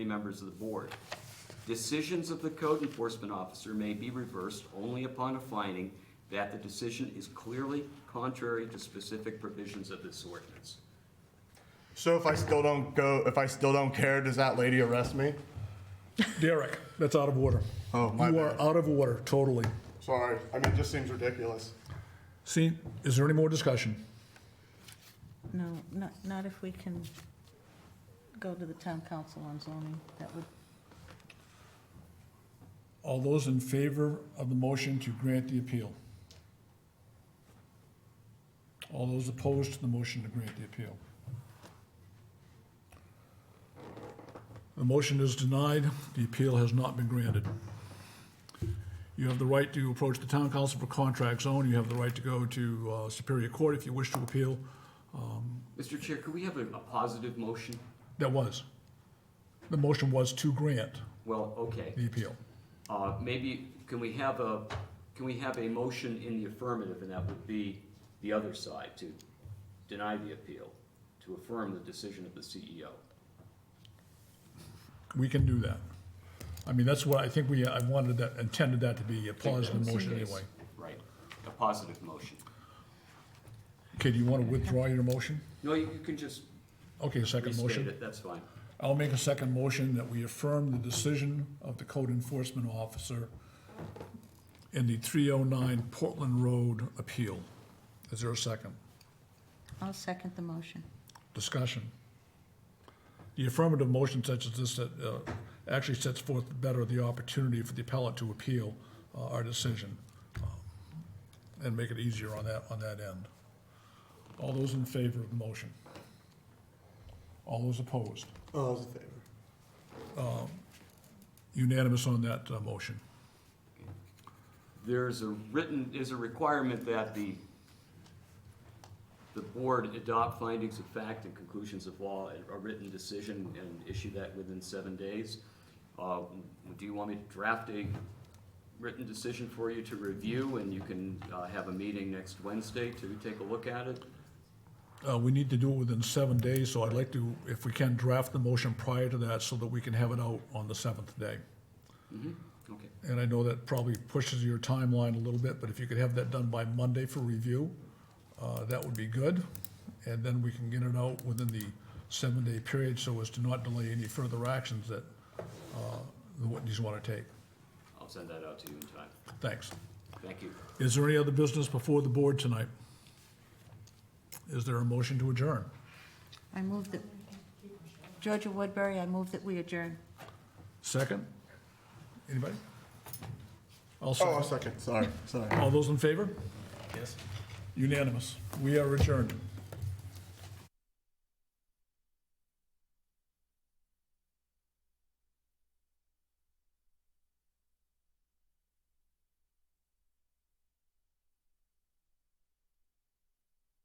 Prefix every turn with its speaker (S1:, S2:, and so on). S1: members of the board. Decisions of the code enforcement officer may be reversed only upon a finding that the decision is clearly contrary to specific provisions of this ordinance.
S2: So if I still don't go, if I still don't care, does that lady arrest me?
S3: Derek, that's out of order.
S2: Oh, my
S3: You are
S2: bad.
S3: out of order, totally.
S2: Sorry, I mean, it just seems ridiculous.
S3: See, is there any more discussion?
S4: No, not, not if we can go to the town council on zoning, that would,
S3: All those in favor of the motion to grant the appeal? All those opposed to the motion to grant the appeal? The motion is denied, the appeal has not been granted. You have the right to approach the town council for contract zone, you have the right to go to uh, Superior Court if you wish to appeal.
S1: Mr. Chair, could we have a, a positive motion?
S3: That was. The motion was to grant
S1: Well, okay.
S3: the appeal.
S1: Uh, maybe, can we have a, can we have a motion in the affirmative, and that would be the other side, to deny the appeal, to affirm the decision of the E CEO?
S3: We can do that. I mean, that's what I think we, I wanted that, intended that to be a
S1: I think that was
S3: positive
S1: the
S3: motion
S1: case.
S3: anyway.
S1: Right, a positive motion.
S3: Okay, do you want to withdraw your motion?
S1: No, you you can just
S3: Okay, second
S1: restate
S3: motion.
S1: it, that's fine.
S3: I'll make a second motion that we affirm the decision of the code enforcement officer in the 309 Portland Road appeal. Is there a second?
S4: I'll second the motion.
S3: Discussion. The affirmative motion such as this that uh, actually sets forth better the opportunity for the appellate to appeal uh, our decision um, and make it easier on that, on that end. All those in favor of the motion? All those opposed?
S2: Oh, that was a favor.
S3: Unanimous on that uh, motion.
S1: There's a written, is a requirement that the, the board adopt findings of fact and conclusions of law, and a written decision, and issue that within seven days. Uh, Do you want me to draft a written decision for you to review, and you can uh, have a meeting next Wednesday to take a look at it?
S3: Uh, We need to do it within seven days, so I'd like to, if we can, draft the motion prior to that so that we can have it out on the seventh day.
S1: Okay,
S3: And I know that probably pushes your timeline a little bit, but if you could have that done by Monday for review, uh, that would be good. And then we can get it out within the seven-day period so as to not delay any further actions that uh, the Whitneys want to take.
S1: I'll send that out to you in time.
S3: Thanks.
S1: Thank you.
S3: Is there any other business before the board tonight? Is there a motion to adjourn?
S4: I move that, Georgia Woodbury, I move that we adjourn.
S3: Second? Anybody? I'll
S2: Oh,
S3: second.
S2: a second, sorry, sorry.
S3: All those in favor? Yes. Unanimous. We are adjourned.